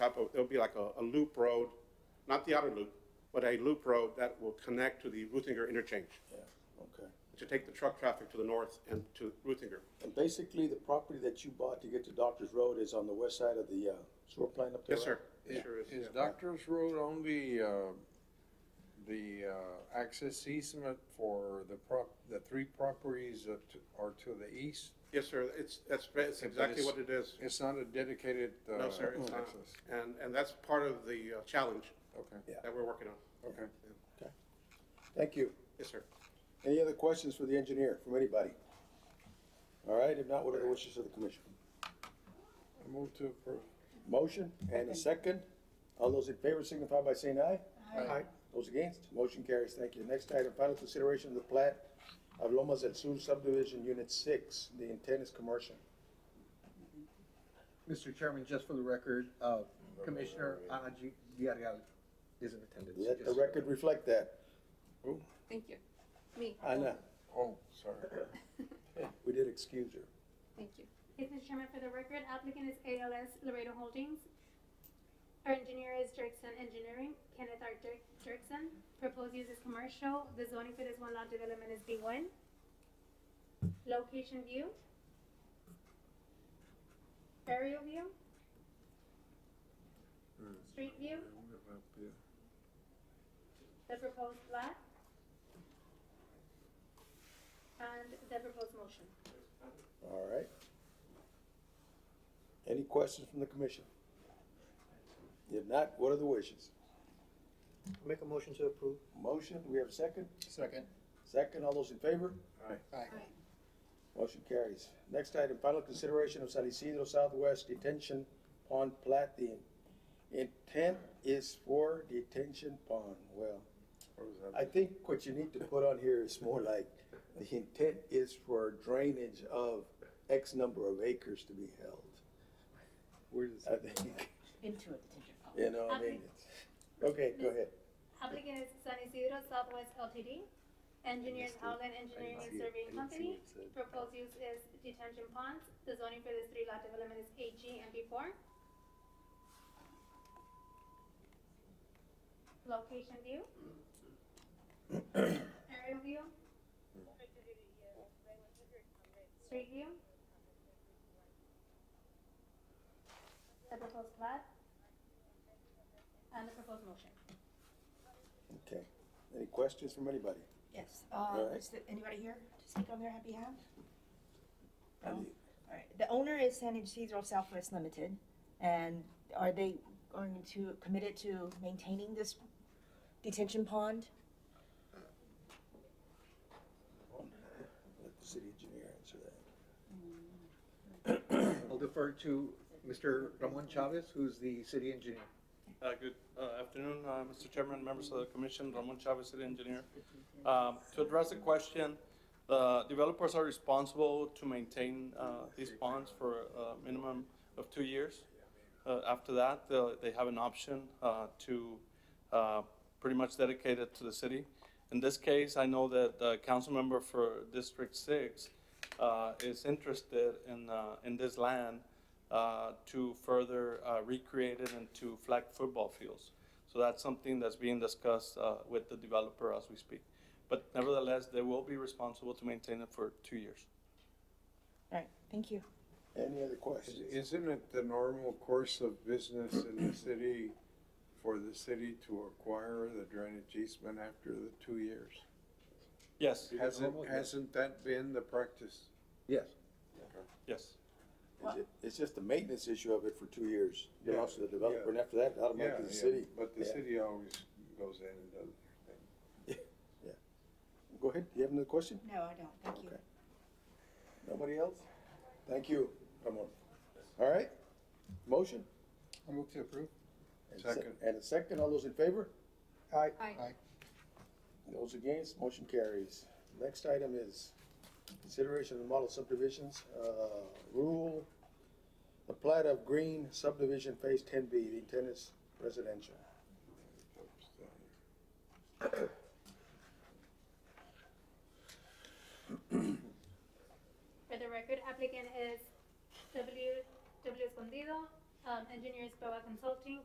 a, there'll be like a, a loop road, not the outer loop, but a loop road that will connect to the Ruthinger interchange, Yeah, okay. to take the truck traffic to the north and to Ruthinger. And basically, the property that you bought to get to Doctor's Road is on the west side of the, uh, sewer plant up there? Yes, sir. right? It sure is. Is Doctor's Road on the, uh, the, uh, access easement for the prop, the three properties that are to the east? Yes, sir. It's, that's, that's But exactly it's- what it is. It's not a dedicated, uh, No, sir, it's not. access. And, and that's part of the uh, challenge Okay, Yeah. that we're working on. okay. Okay. Thank you. Yes, sir. Any other questions for the engineer, from anybody? All right, if not, what are the wishes of the commission? I move to approve. Motion and a second. All those in favor signify by saying aye. Aye. Those against, motion carries. Thank you. Next item, final consideration of the plat of Lomas del Sur subdivision, unit six. The intent is commercial. Mr. Chairman, just for the record, uh, Commissioner Anaji Villarreal is in attendance. Let the Just- record reflect that. Thank you. Me, Anna, Oh, sorry. we did excuse her. thank you. Hey, Mr. Chairman, for the record, applicant is ALS Laredo Holdings. Our engineer is Dirksen Engineering, Kenneth R. Dirk- Dirksen. Proposed use is commercial. The zoning for this one lot development is B1. Location view. Aerial view, street view, the proposed lot. And the proposed motion. All right. Any questions from the commission? If not, what are the wishes? Make a motion to approve. Motion, do we have a second? Second. Second, all those in favor? Aye. Motion carries. Next item, final consideration of San Isidro Southwest Detention Pond plat. The intent is for detention pond. Well, What was that? I think what you need to put on here is more like, the intent is for drainage of X number of acres to be held. Where does I think, into a detention pond. you know, I mean, it's, okay, go ahead. Applicant is San Isidro Southwest LTD. Engineers Howland Engineering and Surveying Company. Proposed use is detention ponds. The zoning for this three lot development is AG and B4. Location view. Aerial view. Street view. The proposed plat. And the proposed motion. Okay. Any questions from anybody? Yes, All uh, right. is there anybody here to speak on their behalf? No? Andy? All right, the owner is San Isidro Southwest Limited, and are they going to, committed to maintaining this detention pond? Let the city engineer answer that. I'll defer to Mr. Ramon Chavez, who's the city engineer. Uh, Good uh, afternoon, uh, Mr. Chairman, members of the commission, Ramon Chavez, city engineer. Um, To address the question, the developers are responsible to maintain uh, these ponds for a minimum of two years. Uh, After that, they'll- they have an option uh, to uh, pretty much dedicate it to the city. In this case, I know that the council member for District Six uh, is interested in, uh, in this land uh, to further uh, recreate it into flag football fields. So that's something that's being discussed uh, with the developer as we speak. But nevertheless, they will be responsible to maintain it for two years. All right, thank you. Any other questions? Isn't it the normal course of business in the city for the city to acquire the drainage easement after the two years? Yes, Hasn't, normal, yeah. hasn't that been the practice? Yes. yes. It's ju- It's just the maintenance issue of it for two years, belongs to the developer, and after that, Yeah, automatically the yeah, city. But the Yeah. city always goes in and does their thing. Go ahead, you have another question? No, I don't, thank Okay. Nobody else? Thank you, Ramon. All right, motion? I move to approve. And se- Second. And a second, all those in favor? Aye. Aye. Those against, motion carries. Next item is consideration of model subdivisions, uh, rule, the plat of green subdivision phase ten B, the intent is residential. For the record, applicant is W, W Escondido, um, engineers Boa Consulting,